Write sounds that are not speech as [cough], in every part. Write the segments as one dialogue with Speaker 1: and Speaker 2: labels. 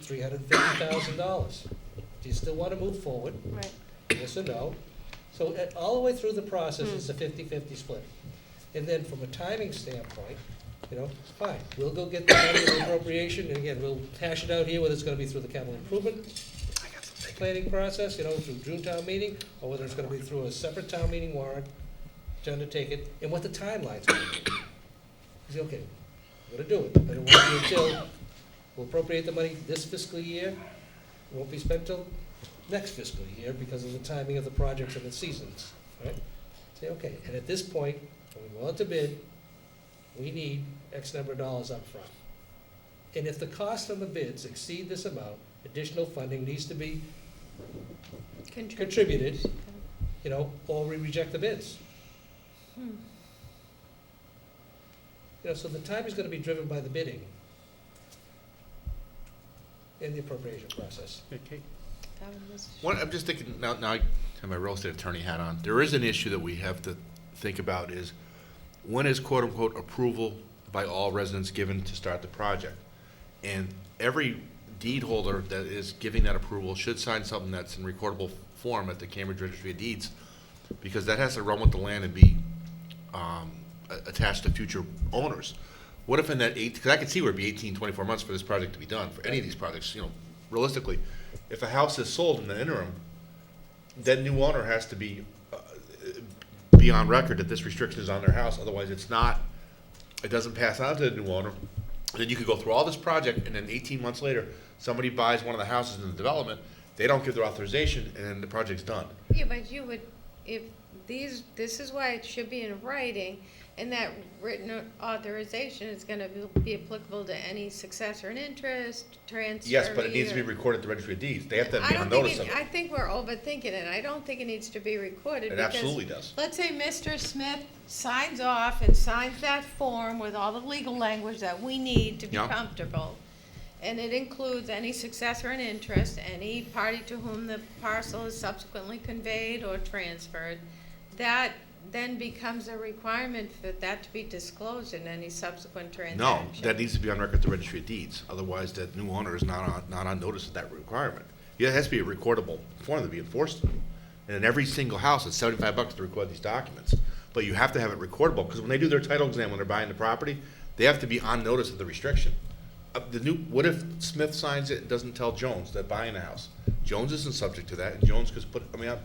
Speaker 1: three hundred fifty thousand dollars. Do you still want to move forward?
Speaker 2: Right,
Speaker 1: [laughs] yes or no. So uh, all the way through the process, it's a 50-50 split. And then from a timing standpoint, you know, fine, we'll go get the money in the appropriation, and again, we'll hash it out here, whether it's gonna be through the capital improvement planning process, you know, through June town meeting, or whether it's gonna be through a separate town meeting warrant to undertake it, and what the timeline's gonna be. You say, okay, we're gonna do it, but it won't be until, we'll appropriate the money this fiscal year, it won't be spent till next fiscal year because of the timing of the projects and the seasons, right? Say, okay, and at this point, when we go out to bid, we need X number of dollars up front. And if the cost on the bids exceed this amount, additional funding needs to be contributed, you know, or we reject the bids.
Speaker 2: Hmm.
Speaker 1: You know, so the time is gonna be driven by the bidding and the appropriation process.
Speaker 3: Okay.
Speaker 2: That one was-
Speaker 4: What, I'm just thinking, now, now I have my real estate attorney hat on, there is an issue that we have to think about is, when is quote-unquote approval by all residents given to start the project? And every deed holder that is giving that approval should sign something that's in recordable form at the Cambridge Registry of Deeds, because that has to run with the land and be, um, a- attached to future owners. What if in that eight, because I could see where it'd be 18, 24 months for this project to be done, for any of these projects, you know, realistically. If a house is sold in the interim, that new owner has to be, uh, be on record that this restriction is on their house, otherwise it's not, it doesn't pass on to the new owner. Then you could go through all this project, and then eighteen months later, somebody buys one of the houses in the development, they don't give their authorization, and then the project's done.
Speaker 5: Yeah, but you would, if these, this is why it should be in writing, and that written authorization is gonna be- be applicable to any successor in interest, transfer.
Speaker 4: Yes, but it needs to be recorded at the registry of deeds, they have to
Speaker 5: I
Speaker 4: be
Speaker 5: don't
Speaker 4: on
Speaker 5: think
Speaker 4: notice
Speaker 5: it-
Speaker 4: of it.
Speaker 5: I think we're overthinking it, I don't think it needs to be recorded,
Speaker 4: It
Speaker 5: because.
Speaker 4: absolutely does.
Speaker 5: Let's say Mr. Smith signs off and signs that form with all the legal language that we need to be
Speaker 4: Yeah.
Speaker 5: comfortable. And it includes any successor in interest, any party to whom the parcel is subsequently conveyed or transferred. That then becomes a requirement for that to be disclosed in any subsequent
Speaker 4: No,
Speaker 5: transaction.
Speaker 4: that needs to be on record at the registry of deeds, otherwise that new owner is not on, not on notice of that requirement. Yeah, It has to be a recordable form to be enforced. And in every single house, it's seventy-five bucks to record these documents, but you have to have it recordable, because when they do their title exam, when they're buying the property, they have to be on notice of the restriction. Uh, the new, what if Smith signs it and doesn't tell Jones that buying the house? Jones isn't subject to that, and Jones could put, I mean, I-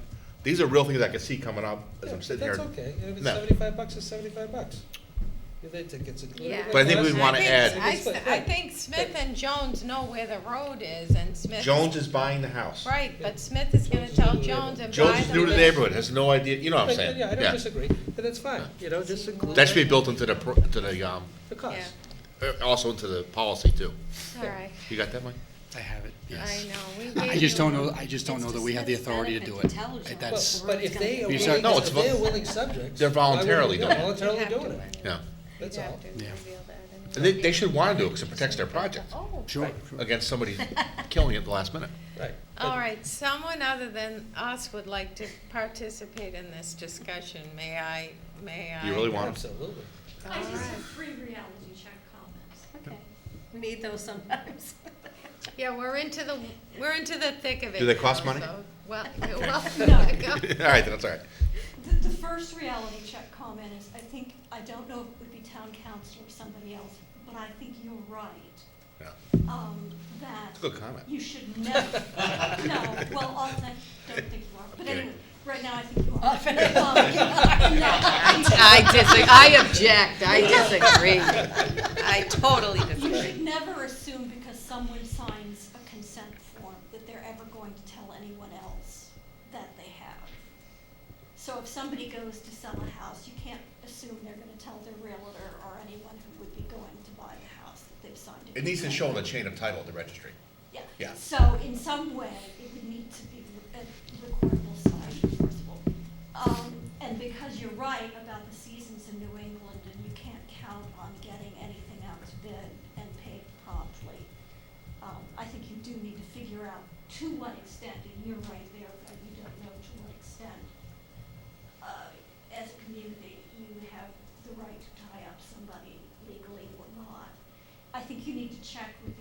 Speaker 4: these are real things I could see coming up as
Speaker 1: Yeah,
Speaker 4: I'm
Speaker 1: but
Speaker 4: sitting here.
Speaker 1: That's okay, And if it's
Speaker 4: No.
Speaker 1: seventy-five bucks, it's seventy-five bucks. If they think it's included.
Speaker 5: Yeah.
Speaker 1: with
Speaker 4: But I think
Speaker 1: cost,
Speaker 4: we'd wanna
Speaker 5: I think-
Speaker 4: add-
Speaker 5: I, s- I think Smith and Jones know where the road is, and Smith.
Speaker 4: Jones is buying the house.
Speaker 5: Right, but Smith is gonna
Speaker 1: Jones is new to
Speaker 5: tell
Speaker 1: the
Speaker 5: Jones and buy the.
Speaker 4: Jones is new to the
Speaker 5: list.
Speaker 4: neighborhood, has no idea, you know what I'm
Speaker 1: Right,
Speaker 4: saying?
Speaker 1: Yeah, I don't disagree, and that's fine, you know, just include.
Speaker 4: That should be built into the, pro- to the, um,
Speaker 1: The cost.
Speaker 4: uh, also into the policy too.
Speaker 5: All right,
Speaker 4: You got that, Mike?
Speaker 3: I have it.
Speaker 5: I know, we
Speaker 4: [laughs]
Speaker 3: I
Speaker 5: gave
Speaker 3: just
Speaker 5: you-
Speaker 3: don't know, I just don't know that we have the authority to do it.
Speaker 1: Well,
Speaker 3: That's,
Speaker 1: But if they are
Speaker 3: You
Speaker 1: willing,
Speaker 3: said-
Speaker 4: No,
Speaker 1: if
Speaker 4: it's
Speaker 1: they are
Speaker 4: vo-
Speaker 1: willing subjects.
Speaker 4: They're
Speaker 1: why wouldn't
Speaker 4: voluntarily
Speaker 1: they-
Speaker 4: doing it.
Speaker 1: Voluntarily
Speaker 5: You'd have
Speaker 1: doing
Speaker 5: to
Speaker 1: it,
Speaker 4: Yeah.
Speaker 5: You'd
Speaker 1: that's all.
Speaker 5: have to
Speaker 3: Yeah.
Speaker 5: reveal that anyway.
Speaker 4: And they, they should wanna do it because it protects their project
Speaker 5: Oh,
Speaker 3: sure, sure.
Speaker 4: against somebody killing it at the last minute.
Speaker 1: Right.
Speaker 5: all right, someone other than us would like to participate in this discussion, may I, may I?
Speaker 4: You really want them?
Speaker 1: Absolutely.
Speaker 5: All
Speaker 6: I just
Speaker 5: right.
Speaker 6: have free reality check comments.
Speaker 7: Okay.
Speaker 1: [laughs]
Speaker 7: We need those sometimes.
Speaker 5: Yeah, we're into the, we're into the thick of it.
Speaker 4: Do they
Speaker 5: now,
Speaker 4: cost money?
Speaker 5: so- Well, [laughs] well, no,
Speaker 4: [laughs] All
Speaker 5: [laughs] go.
Speaker 4: right, then, that's all right.
Speaker 6: The, the first reality check comment is, I think, I don't know if it would be town council or somebody else, but I think you're right,
Speaker 4: Yeah.
Speaker 6: um, that
Speaker 4: It's a good comment.
Speaker 6: you should never, no, well, all that, don't think you are, but
Speaker 4: Okay.
Speaker 6: anyway, right now I think
Speaker 7: [laughs]
Speaker 6: you are. Um, and that you should-
Speaker 7: I disagree, I object, I disagree. I totally
Speaker 6: You
Speaker 7: disagree.
Speaker 6: should never assume because someone signs a consent form that they're ever going to tell anyone else that they have. So if somebody goes to sell a house, you can't assume they're gonna tell their realtor or anyone who would be going to buy the house that they've signed a
Speaker 4: It needs to
Speaker 6: consent
Speaker 4: show on the
Speaker 6: form.
Speaker 4: chain of title at the registry.
Speaker 6: Yeah,
Speaker 4: yeah.
Speaker 6: so in some way, it would need to be a recordable sign enforceable. Um, and because you're right about the seasons in New England, and you can't count on getting anything out to bid and paid promptly, um, I think you do need to figure out to what extent, and you're right there, but you don't know to what extent, uh, as a community, you have the right to tie up somebody legally or not. I think you need to check with